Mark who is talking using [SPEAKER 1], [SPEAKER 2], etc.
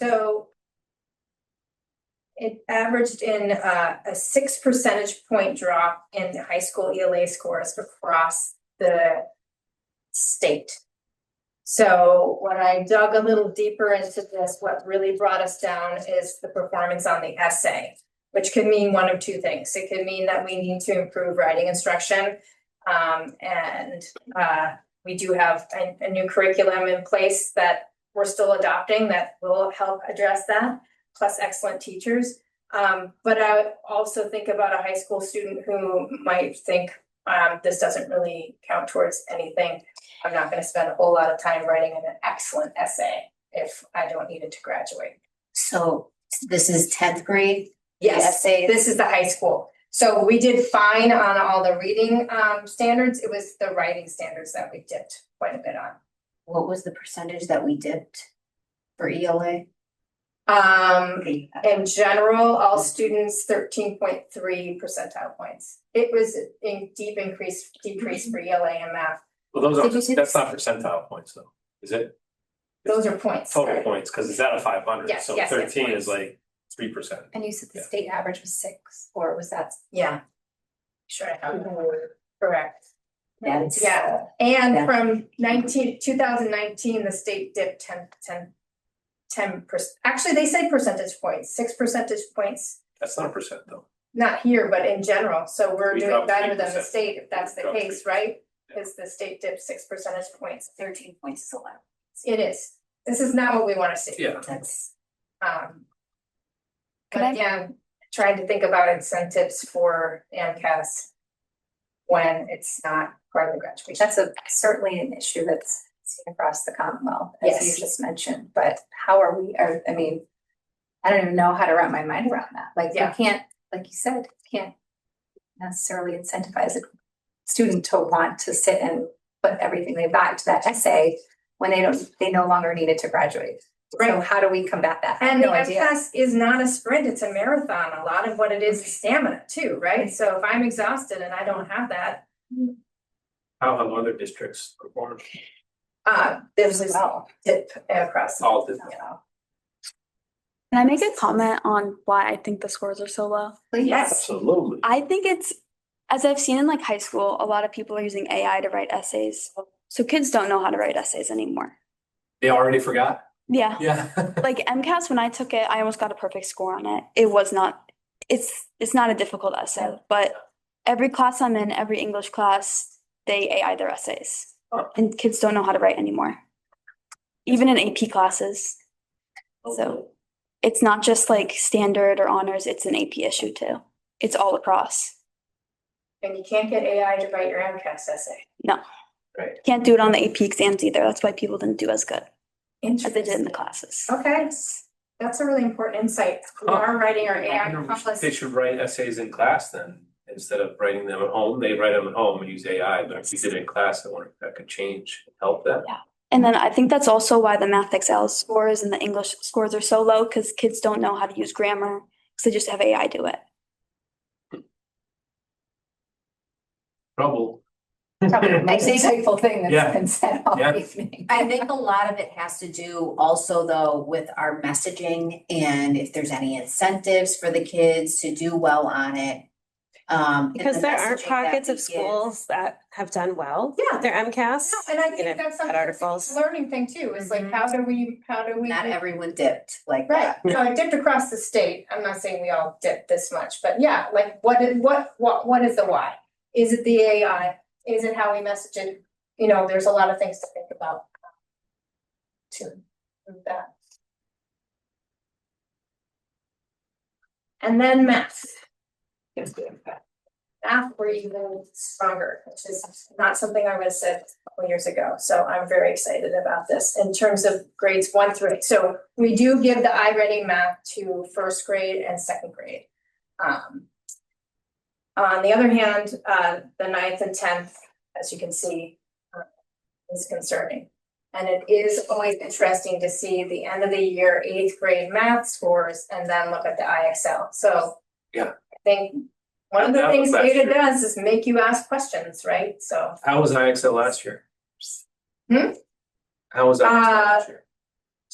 [SPEAKER 1] So. It averaged in uh, a six percentage point drop in the high school ELA scores across the state. So when I dug a little deeper into this, what really brought us down is the performance on the essay. Which could mean one of two things. It could mean that we need to improve writing instruction. Um, and uh, we do have a- a new curriculum in place that we're still adopting that will help address that, plus excellent teachers. Um, but I also think about a high school student who might think, um, this doesn't really count towards anything. I'm not gonna spend a whole lot of time writing an excellent essay if I don't need it to graduate.
[SPEAKER 2] So this is tenth grade? the
[SPEAKER 1] Yes,
[SPEAKER 2] Essays,
[SPEAKER 1] this is the high school. So we did fine on all the reading, um, standards. It was the writing standards that we dipped quite a bit on.
[SPEAKER 2] what was the percentage that we dipped for E ELA?
[SPEAKER 1] Um,
[SPEAKER 2] Okay,
[SPEAKER 1] In general, all
[SPEAKER 3] Mm.
[SPEAKER 1] students thirteen point three percentile points. It was in deep increase, decrease
[SPEAKER 3] Mm-hmm.
[SPEAKER 1] for ELA and math.
[SPEAKER 3] Well, those
[SPEAKER 2] Did you see
[SPEAKER 3] are, that's
[SPEAKER 2] this?
[SPEAKER 3] not percentile points though, is it?
[SPEAKER 1] Those are points.
[SPEAKER 3] Total
[SPEAKER 1] right?
[SPEAKER 3] points, cause it's out of five hundred,
[SPEAKER 1] Yes,
[SPEAKER 3] so
[SPEAKER 1] yes, yes,
[SPEAKER 3] thirteen is
[SPEAKER 1] points.
[SPEAKER 3] like three percent.
[SPEAKER 4] And you said the
[SPEAKER 3] Yeah.
[SPEAKER 4] state average was six, or was that?
[SPEAKER 1] Yeah. Sure, I have that. correct.
[SPEAKER 2] that's.
[SPEAKER 1] Yeah, and
[SPEAKER 2] Yeah.
[SPEAKER 1] from 19 2019, the state dipped 10 10 10 percent, actually, they say percentage points, six percentage points,
[SPEAKER 3] That's not a percent though.
[SPEAKER 1] not here, but in general, so we're
[SPEAKER 3] We
[SPEAKER 1] doing
[SPEAKER 3] dropped
[SPEAKER 1] better than the
[SPEAKER 3] 3%.
[SPEAKER 1] state, if that's
[SPEAKER 3] We
[SPEAKER 1] the
[SPEAKER 3] dropped
[SPEAKER 1] case, right?
[SPEAKER 3] Yeah.
[SPEAKER 1] Cause the state dipped six percentage points,
[SPEAKER 2] Thirteen points is a lot,
[SPEAKER 1] it is, this is not what we wanna see.
[SPEAKER 3] Yeah.
[SPEAKER 2] that's,
[SPEAKER 1] Um.
[SPEAKER 4] Could
[SPEAKER 1] But
[SPEAKER 4] I-
[SPEAKER 1] again, trying to think about incentives for AMCAS. When it's not part of the graduation.
[SPEAKER 4] That's a certainly an issue that's seen across the Commonwealth, as you
[SPEAKER 1] Yes.
[SPEAKER 4] just mentioned, but how are we, or, I mean. I don't even know how to wrap my mind around that, like, you
[SPEAKER 1] Yeah.
[SPEAKER 4] can't, like you said, you can't necessarily incentivize a student to want to sit and put everything they've got into that essay when they don't, they no longer need it to graduate. So
[SPEAKER 1] Right.
[SPEAKER 4] how do we combat that? I have
[SPEAKER 1] And the
[SPEAKER 4] no idea.
[SPEAKER 1] MCAS is not a sprint, it's a marathon. A lot of what it is is stamina too, right? So if I'm exhausted and I don't have that,
[SPEAKER 3] How have other districts performed?
[SPEAKER 1] uh, there's
[SPEAKER 4] Really
[SPEAKER 1] this
[SPEAKER 4] well.
[SPEAKER 1] dip across. the-
[SPEAKER 3] All did.
[SPEAKER 1] Yeah.
[SPEAKER 5] Can I make a comment on why I think the scores are so low?
[SPEAKER 1] Yes,
[SPEAKER 3] Absolutely.
[SPEAKER 5] I think it's, as I've seen in like high school, a lot of people are using AI to write essays. So kids don't know how to write essays anymore.
[SPEAKER 3] They already forgot?
[SPEAKER 5] Yeah.
[SPEAKER 3] Yeah.
[SPEAKER 5] Like MCAS, when I took it, I almost got a perfect score on it. It was not, it's, it's not a difficult essay, but every class I'm in, every English class, they AI their essays.
[SPEAKER 3] Huh.
[SPEAKER 5] And kids don't know how to write anymore. Even in AP classes, So- it's not just like standard or honors, it's an AP issue too. It's all across.
[SPEAKER 1] and you can't get AI to write your MCAS essay.
[SPEAKER 5] Can't do it on the AP exams either. That's why people didn't do as good as they did in
[SPEAKER 1] Interesting.
[SPEAKER 5] the classes.
[SPEAKER 1] Okay, that's a really important insight. We
[SPEAKER 3] Huh.
[SPEAKER 1] are writing our
[SPEAKER 3] I
[SPEAKER 1] AI
[SPEAKER 3] wonder if
[SPEAKER 1] accomplice
[SPEAKER 3] They should write essays in class then, instead of writing them at home, they write them at home and use AI, but if you did it in class, I wonder if that could change, help them.
[SPEAKER 5] And then I think that's also why the math XL scores and the English scores are so low because kids don't know how to use grammar because they just have AI do it.
[SPEAKER 3] Trouble.
[SPEAKER 4] Probably the most
[SPEAKER 2] think-
[SPEAKER 4] insightful thing
[SPEAKER 3] Yeah.
[SPEAKER 4] that's been said all
[SPEAKER 3] Yeah.
[SPEAKER 4] evening.
[SPEAKER 2] I think a lot of it has to do also though with our messaging and if there's any incentives for the kids to do well on it. Um. and
[SPEAKER 6] Because
[SPEAKER 2] the
[SPEAKER 6] there are
[SPEAKER 2] messaging that
[SPEAKER 6] pockets
[SPEAKER 2] we
[SPEAKER 6] of
[SPEAKER 2] give.
[SPEAKER 6] schools that have done well.
[SPEAKER 1] Yeah.
[SPEAKER 6] with Their MCAS.
[SPEAKER 1] No, and I
[SPEAKER 6] you know,
[SPEAKER 1] think that's
[SPEAKER 6] that
[SPEAKER 1] something, it's
[SPEAKER 6] articles.
[SPEAKER 1] a learning thing too, is like,
[SPEAKER 2] Mhm.
[SPEAKER 1] how do we, how do we?
[SPEAKER 2] Not everyone dipped like
[SPEAKER 1] Right,
[SPEAKER 2] that.
[SPEAKER 1] so it dipped across the state, I'm not saying we all dipped this much, but yeah, like, what is, what, what, what is the why? Is it the AI, is it how we message it, you know, there's a lot of things to think about. To that. And then math. Math were even stronger, which is not something I would have said couple years ago, so I'm very excited about this in terms of grades one through eight. So we do give the I ready math to first grade and second grade. Um. On the other hand, uh, the ninth and tenth, as you can see, uh, is concerning. And it is always interesting to see the end of the year eighth grade math scores and then look at the IXL, so.
[SPEAKER 3] Yeah.
[SPEAKER 1] I think one of the
[SPEAKER 3] That was
[SPEAKER 1] things
[SPEAKER 3] last
[SPEAKER 1] data
[SPEAKER 3] year.
[SPEAKER 1] does is make you ask questions, right? So.
[SPEAKER 3] How was IXL last year?
[SPEAKER 1] Hmm? Uh,
[SPEAKER 3] How was IXL last year?